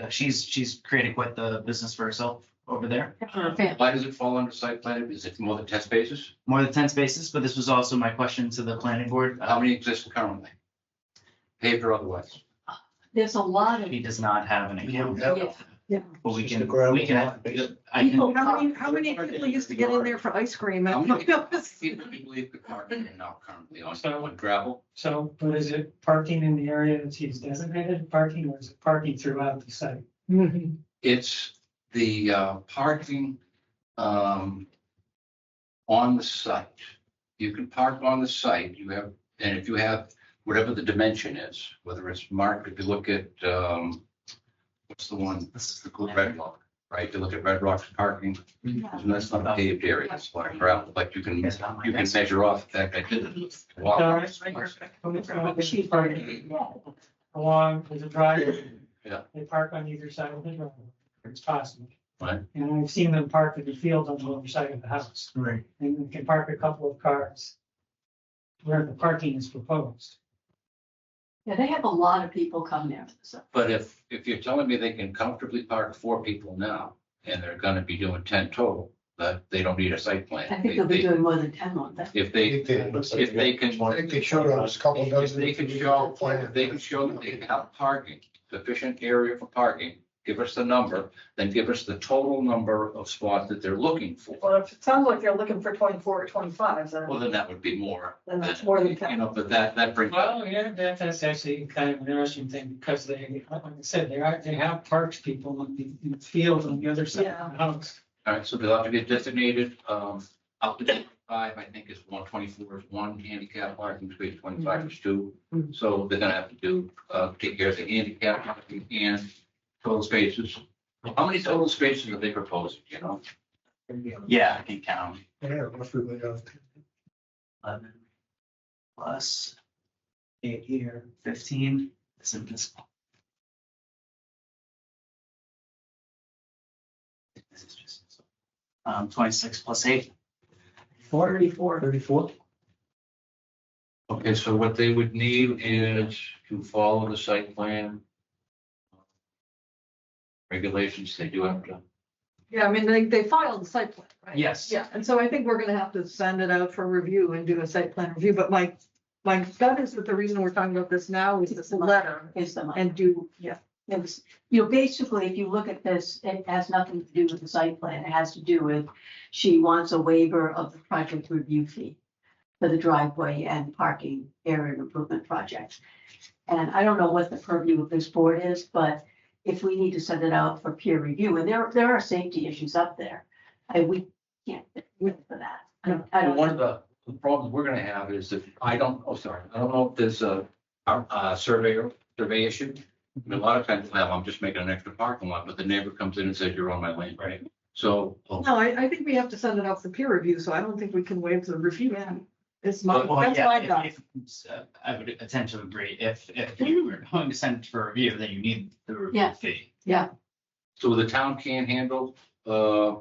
Uh, She's, she's created quite the business for herself over there. Her family. Why does it fall under site plan? Is it more than ten spaces? More than ten spaces, but this was also my question to the planning board. How Uh, many exist currently? Paved or otherwise? There's a lot of. He does not have an account, Yeah. but we It's just a can, gravel we can. lot, basically. I People- can, How many, how many people used to get in there for ice cream? How and- many people do you believe the parking are now currently on, on gravel? So, but is it parking in the area that he's designated parking or is it parking throughout the site? Mhm. It's the uh, parking um, on the site. You can park on the site, you have, and if you have whatever the dimension is, whether it's marked, if you look at, um, what's the one, this is the cool Red Rock, right? You look at Red Rock's parking, Yeah. that's not a paved area, it's like gravel, but you can, you It's not my can desk. measure off, in fact, I did. walk All on right. this place. When it's not busy parking Along, there's a driveway. Yeah. They park on either side of the driveway. It's possible. Right. And I've seen them park in the field on the other side of the house Right. and you can park a couple of cars. Where the parking is proposed. Yeah, they have a lot of people come there, so. But if, if you're telling me they can comfortably park four people now, and they're gonna be doing ten total, that they don't need a site plan. I think they'll They- be they- doing more than ten on that. If they, if they can- I think they showed us a couple if dozen. they can show, if they can show that they have parking, sufficient area for parking, give us the number, then give us the total number of spots that they're looking for. Well, if it sounds like they're looking for twenty-four or twenty-five, Well, then then that would be more. Then that's more than ten. You know, but that, that brings. Well, yeah, that, that's actually kind of an interesting thing because they, like I said, they are, they have parked people in the, in the field on the other side of the house. All right, so they'll have to get designated, um, up to twenty-five, I think is one twenty-four is one handicap parking space, twenty-five is two. Mhm. So they're gonna have to do, uh, take care of the handicap parking and total spaces. How many total spaces are they proposing, you know? Yeah, I can count. Yeah, roughly, we got Eleven. Plus. Eight here. Fifteen, this is this. This is just. Um, twenty-six plus eight. thirty-four. thirty-four. Okay, so what they would need is to follow the site plan. Regulations, they do have to. Yeah, I mean, they, they filed the site plan, right? Yes. Yeah, and so I think we're gonna have to send it out for review and do a site plan review, but my, my gut is that the reason we're talking about this now is this letter Is the money. and do, yeah. It was, you know, basically, if you look at this, it has nothing to do with the site plan. It has to do with she wants a waiver of the project review fee for the driveway and parking area improvement project. And I don't know what the purview of this board is, but if we need to send it out for peer review, and there, there are safety issues up there. And we can't, for that. I don't, I Well, don't. One of the the problems we're gonna have is that, I don't, oh, sorry, I don't know if there's a, a a surveyor, survey issue. I mean, A lot of times, well, I'm just making an extra parking lot, but the neighbor comes in and says, you're on my land, right? So, well, No, I, I think we have to send it out for peer review, so I don't think we can waive the review. It's my, Well, that's yeah, my if- gut. if- uh, I would tend to agree, if, if you were going to send it for review, then you need the review Yeah. fee. so the town can handle, uh,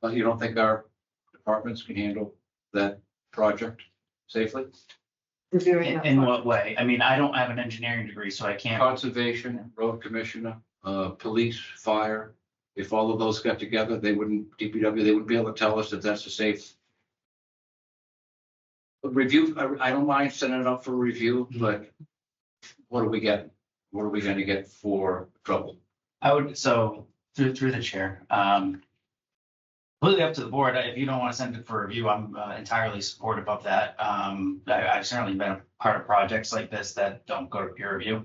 but you don't think our departments can handle that project safely? Reviewing In that. in what way? I mean, I don't have an engineering degree, so I can't. Conservation, road commissioner, uh, police, fire, if all of those got together, they wouldn't, DPW, they wouldn't be able to tell us that that's a safe. But Review, I, I don't mind sending it up for review, but what do we get? What are we gonna get for trouble? I would, so through, through the chair, um, completely up to the board. If you don't want to send it for review, I'm uh, entirely supportive of that. Um, I, I've certainly been a part of projects like this that don't go to peer review.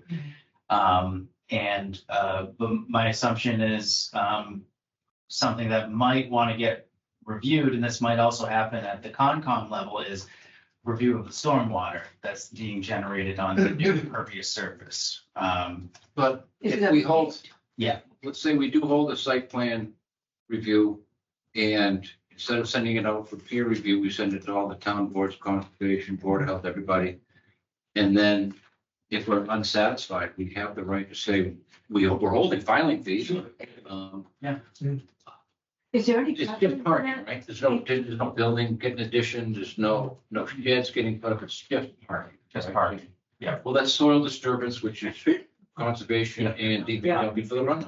Um, and, uh, but my assumption is, um, something that might want to get reviewed, and this might also happen at the Concom level, is review of the stormwater that's being generated on the new impervious surface. Um, But Is if that- we hold. Yeah. Let's say we do hold a site plan review and instead of sending it out for peer review, we send it to all the town boards, conservation board, of health, everybody. And then if we're unsatisfied, we have the right to say, we, we're holding filing fees. Um, Is there any? It's precedent just for parking, that? right? There's no, there's no building getting addition, there's no, no sheds getting put up, it's just parking. Just right? parking, yeah. Well, that's soil disturbance, which is conservation and DPW for the runoff.